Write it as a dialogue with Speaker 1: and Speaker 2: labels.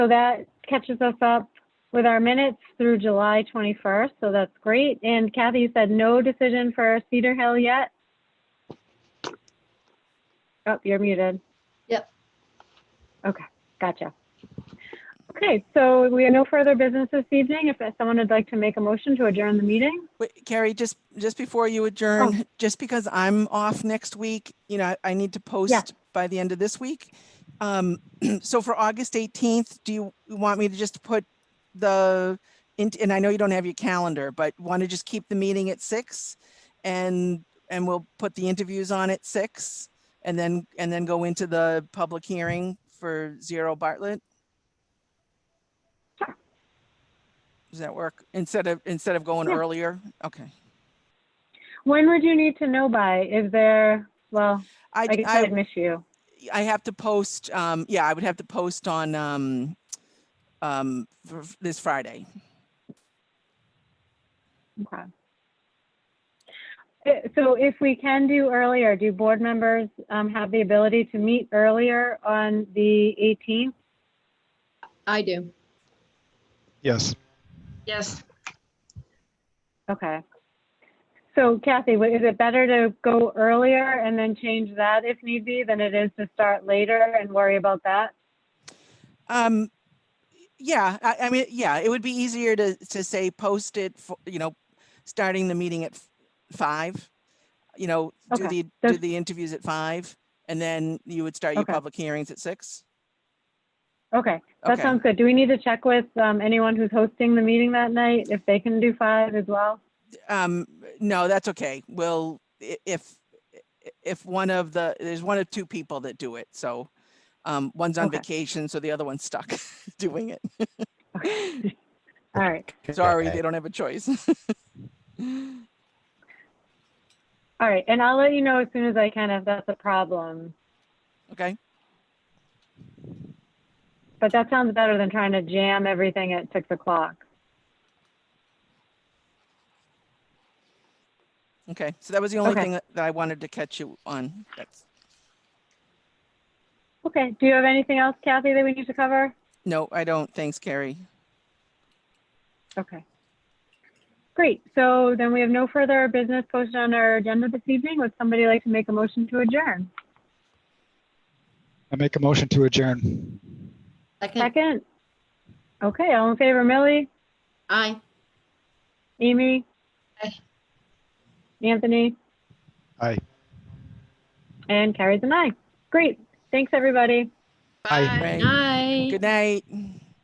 Speaker 1: So that catches us up with our minutes through July 21st, so that's great. And Kathy, you said no decision for Cedar Hill yet? Oh, you're muted.
Speaker 2: Yep.
Speaker 1: Okay, gotcha. Okay, so we have no further business this evening. If someone would like to make a motion to adjourn the meeting?
Speaker 3: Wait, Carrie, just, just before you
Speaker 1: Oh.
Speaker 3: adjourn, just because I'm off next week, you know, I need to post by the end of this week. Um, so for August 18th, do you want me to just put the, in- and I know you don't have your calendar, but want to just keep the meeting at six? And, and we'll put the interviews on at six and then, and then go into the public hearing for Zero Bartlett?
Speaker 1: Sure.
Speaker 3: Does that work? Instead of, instead of going
Speaker 1: Yeah.
Speaker 3: earlier? Okay.
Speaker 1: When would you need to know by? Is there, well,
Speaker 3: I,
Speaker 1: like I said, I'd
Speaker 3: I,
Speaker 1: miss you.
Speaker 3: I have to post, um, yeah, I would have to post on, um, um, for- for this Friday.
Speaker 1: Okay. Uh, So if we can do earlier, do board members um, have the ability to meet earlier on the 18th?
Speaker 2: I do.
Speaker 4: Yes.
Speaker 5: Yes,
Speaker 1: Okay. So Kathy, wa- is it better to go earlier and then change that if need be than it is to start later and worry about that?
Speaker 3: Um, yeah, I, I mean, yeah, it would be easier to, to say post it for, you know, starting the meeting at f- five. You know, do
Speaker 1: Okay,
Speaker 3: the, do
Speaker 1: that's-
Speaker 3: the interviews at five and then you would start your
Speaker 1: Okay.
Speaker 3: public hearings at six.
Speaker 1: Okay, that
Speaker 3: Okay,
Speaker 1: sounds good. Do we need to check with um, anyone who's hosting the meeting that night if they can do five as well?
Speaker 3: um, no, that's okay. We'll, i- if, i- if one of the, there's one of two people that do it, so. Um, one's on
Speaker 1: Okay.
Speaker 3: vacation, so the other one's stuck doing it.
Speaker 1: All right.
Speaker 3: Sorry,
Speaker 6: Okay.
Speaker 3: they don't have a choice.
Speaker 1: All right, and I'll let you know as soon as I can if that's a problem.
Speaker 3: Okay,
Speaker 1: But that sounds better than trying to jam everything at six o'clock.
Speaker 3: okay. So that was the only
Speaker 1: Okay.
Speaker 3: thing that that I wanted to catch you on. That's,
Speaker 1: Okay, do you have anything else, Kathy, that we need to cover?
Speaker 3: no, I don't. Thanks, Carrie.
Speaker 1: Okay. Great, so then we have no further business posted on our agenda this evening. Would somebody like to make a motion to adjourn?
Speaker 4: I make a motion to adjourn.
Speaker 2: Second,
Speaker 1: Second? Okay, all in favor, Millie,
Speaker 2: aye.
Speaker 1: Amy?
Speaker 5: Aye.
Speaker 1: Anthony?
Speaker 4: Aye.
Speaker 1: And Carrie's an aye. Great, thanks, everybody.
Speaker 4: Aye.
Speaker 5: bye.
Speaker 3: Right.
Speaker 2: Aye.
Speaker 3: Good night.